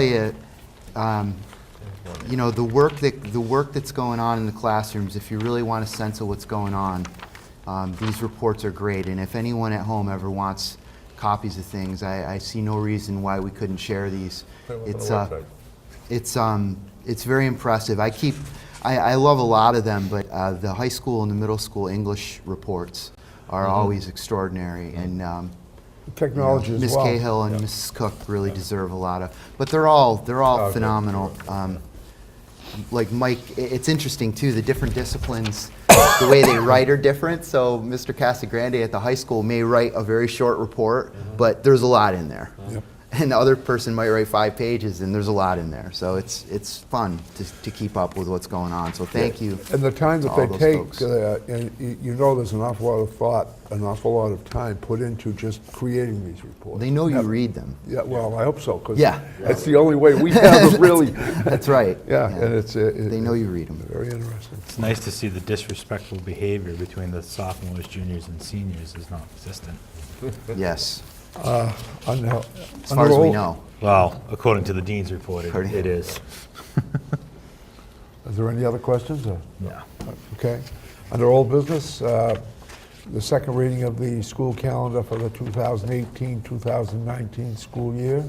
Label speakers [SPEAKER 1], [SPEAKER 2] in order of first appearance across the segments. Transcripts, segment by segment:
[SPEAKER 1] you, um, you know, the work that, the work that's going on in the classrooms, if you really want a sense of what's going on, um, these reports are great, and if anyone at home ever wants copies of things, I, I see no reason why we couldn't share these.
[SPEAKER 2] Put them up on
[SPEAKER 1] It's,
[SPEAKER 2] the
[SPEAKER 1] uh,
[SPEAKER 2] website.
[SPEAKER 1] it's, um, it's very impressive. I keep, I, I love a lot of them, but uh, the high school and the middle school English reports are
[SPEAKER 2] Mm-hmm.
[SPEAKER 1] always extraordinary, and um,
[SPEAKER 3] technology as
[SPEAKER 1] Ms.
[SPEAKER 3] well.
[SPEAKER 1] Cahill and Mrs. Cook really deserve a lot of, but they're all, they're
[SPEAKER 2] Oh,
[SPEAKER 1] all
[SPEAKER 2] good.
[SPEAKER 1] phenomenal. Um, Like Mike, i- it's interesting too, the different disciplines, the way they write are different. So Mr. Casagrande at the high school may write a very short report,
[SPEAKER 3] Mm-hmm.
[SPEAKER 1] but there's a lot in there. And the other person might write five pages and there's a lot in there. So it's, it's fun to, to keep up with what's going on. So thank you.
[SPEAKER 3] And the time that
[SPEAKER 1] to
[SPEAKER 3] they
[SPEAKER 1] all those
[SPEAKER 3] take,
[SPEAKER 1] folks.
[SPEAKER 3] uh, and y- you know there's an awful lot of thought, an awful lot of time put into just creating these reports.
[SPEAKER 1] They know you read them.
[SPEAKER 3] Yeah, well, I hope so, because
[SPEAKER 1] Yeah.
[SPEAKER 3] that's the only way we have it really.
[SPEAKER 1] That's right.
[SPEAKER 3] Yeah, and it's, uh, it-
[SPEAKER 1] They know you read them.
[SPEAKER 3] Very interesting.
[SPEAKER 4] It's nice to see the disrespectful behavior between the sophomores, juniors, and seniors is non-existent.
[SPEAKER 1] Yes,
[SPEAKER 3] As
[SPEAKER 1] as far as we know.
[SPEAKER 4] Well, according to the dean's report, it
[SPEAKER 1] According-
[SPEAKER 4] it is.
[SPEAKER 3] Is there any other questions? or-
[SPEAKER 4] Yeah.
[SPEAKER 3] Okay. Under old business, uh, the second reading of the school calendar for the 2018-2019 school year.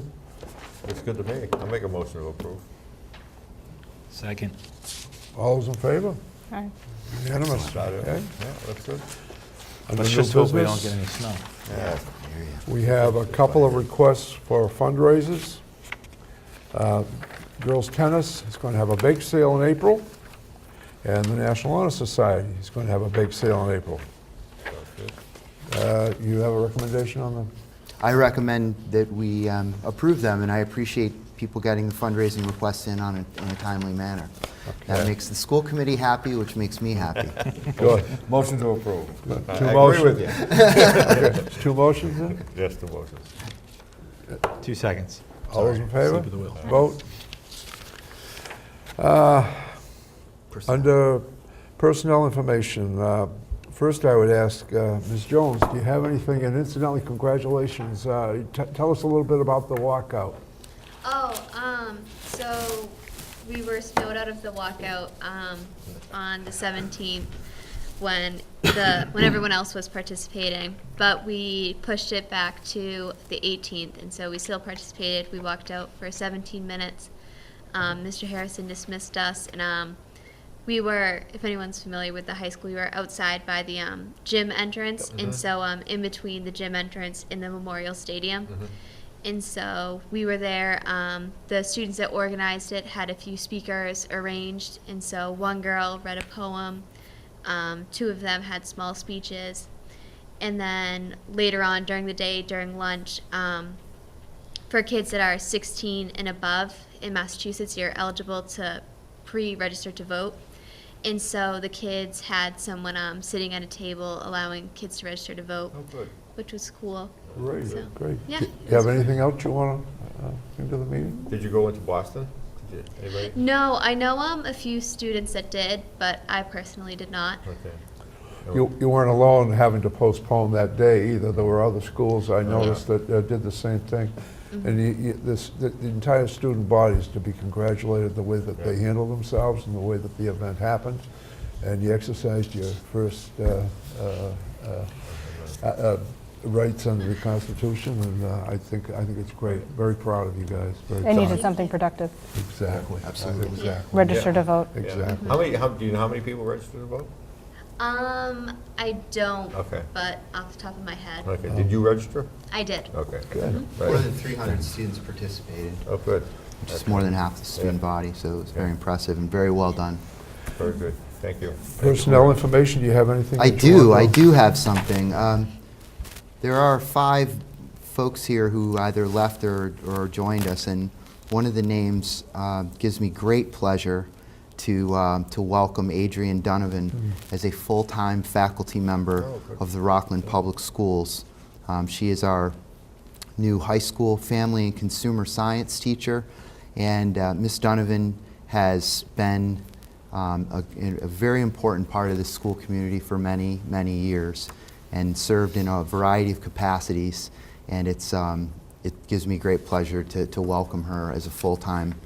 [SPEAKER 2] Looks good to me. I'll make a motion to approve.
[SPEAKER 4] Second.
[SPEAKER 3] All those in favor?
[SPEAKER 5] Aye.
[SPEAKER 3] Unanimous.
[SPEAKER 2] Got it.
[SPEAKER 3] Okay.
[SPEAKER 2] Yeah, that's good.
[SPEAKER 3] Under
[SPEAKER 4] Let's
[SPEAKER 3] new
[SPEAKER 4] just hope we don't
[SPEAKER 3] business,
[SPEAKER 4] get any snow.
[SPEAKER 2] Yeah.
[SPEAKER 3] We have a couple of requests for fundraisers. Uh, Girls Tennis is going to have a bake sale in April, and the National Honor Society is going to have a bake sale in April. Uh, You have a recommendation on them?
[SPEAKER 1] I recommend that we um, approve them, and I appreciate people getting the fundraising requests in on a, in a timely manner. That
[SPEAKER 3] Okay.
[SPEAKER 1] makes the school committee happy, which makes me happy.
[SPEAKER 3] Good.
[SPEAKER 2] Motion to approve. I
[SPEAKER 3] Two
[SPEAKER 2] agree with you.
[SPEAKER 3] motions. Two motions then?
[SPEAKER 2] Yes, two motions.
[SPEAKER 4] Two seconds.
[SPEAKER 3] All those in
[SPEAKER 4] Sorry,
[SPEAKER 3] favor?
[SPEAKER 4] Slip of the wheel.
[SPEAKER 3] Vote. Uh, Under personnel information, uh, first I would ask, uh, Ms. Jones, do you have anything? And incidentally, congratulations. Uh, t- Tell us a little bit about the walkout.
[SPEAKER 6] Oh, um, so we were snowed out of the walkout, um, on the seventeenth when the, when everyone else was participating. But we pushed it back to the eighteenth and so we still participated. We walked out for seventeen minutes. Um, Mr. Harrison dismissed us and, um, we were, if anyone's familiar with the high school, we were outside by the um, gym entrance, and so um, in between the gym entrance and the Memorial Stadium. And so we were there. Um, the students that organized it had a few speakers arranged, and so one girl read a poem, um, two of them had small speeches, and then later on during the day, during lunch, um, for kids that are 16 and above in Massachusetts, you're eligible to pre-register to vote. And so the kids had someone um, sitting at a table allowing kids to register to vote,
[SPEAKER 3] Oh,
[SPEAKER 2] good.
[SPEAKER 6] which was cool.
[SPEAKER 3] Great,
[SPEAKER 6] So,
[SPEAKER 3] great.
[SPEAKER 6] yeah,
[SPEAKER 3] Do
[SPEAKER 6] it
[SPEAKER 3] you have
[SPEAKER 6] was-
[SPEAKER 3] anything else you want to bring to the meeting?
[SPEAKER 2] Did you go into Boston? Did you, anybody?
[SPEAKER 6] No, I know um, a few students that did, but I personally did not.
[SPEAKER 2] Okay.
[SPEAKER 3] You you weren't alone having to postpone that day either. There were other schools, I noticed, that uh, did the same thing.
[SPEAKER 6] Mm-hmm.
[SPEAKER 3] And you- you- this- the the entire student body is to be congratulated, the way that they
[SPEAKER 2] Yeah.
[SPEAKER 3] handled themselves and the way that the event happened. And you exercised your first uh, uh, uh, uh, uh, rights under the Constitution, and uh, I think, I think it's great. Very proud of you guys. Very
[SPEAKER 5] They
[SPEAKER 3] proud.
[SPEAKER 5] needed something productive,
[SPEAKER 3] Exactly.
[SPEAKER 1] Absolutely.
[SPEAKER 3] Exactly.
[SPEAKER 5] register to vote.
[SPEAKER 3] Exactly.
[SPEAKER 2] How many, how, do you know how many people registered to vote?
[SPEAKER 6] Um, I don't,
[SPEAKER 2] Okay.
[SPEAKER 6] but off the top of my head,
[SPEAKER 2] Okay,
[SPEAKER 3] Um,
[SPEAKER 2] did you register?
[SPEAKER 6] I did.
[SPEAKER 2] Okay.
[SPEAKER 3] Good.
[SPEAKER 1] More
[SPEAKER 2] Right.
[SPEAKER 1] than 300 students participated,
[SPEAKER 2] Oh, good.
[SPEAKER 1] which is more than half the student body, so it was very
[SPEAKER 2] Yeah.
[SPEAKER 1] impressive and very well done.
[SPEAKER 2] Very good. Thank you.
[SPEAKER 3] Personnel information, do you have anything?
[SPEAKER 1] I
[SPEAKER 3] that you want
[SPEAKER 1] do,
[SPEAKER 3] to-
[SPEAKER 1] I do have something. Um, There are five folks here who either left or, or joined us, and one of the names uh, gives me great pleasure to, um, to welcome Adrian Donovan as a full-time faculty member
[SPEAKER 2] Hmm. Oh, good.
[SPEAKER 1] of the Rockland Public Schools. Um, She is our new high school family and consumer science teacher. And uh, Ms. Donovan has been um, a, a very important part of the school community for many, many years and served in a variety of capacities. And it's, um, it gives me great pleasure to, to welcome her as a full-time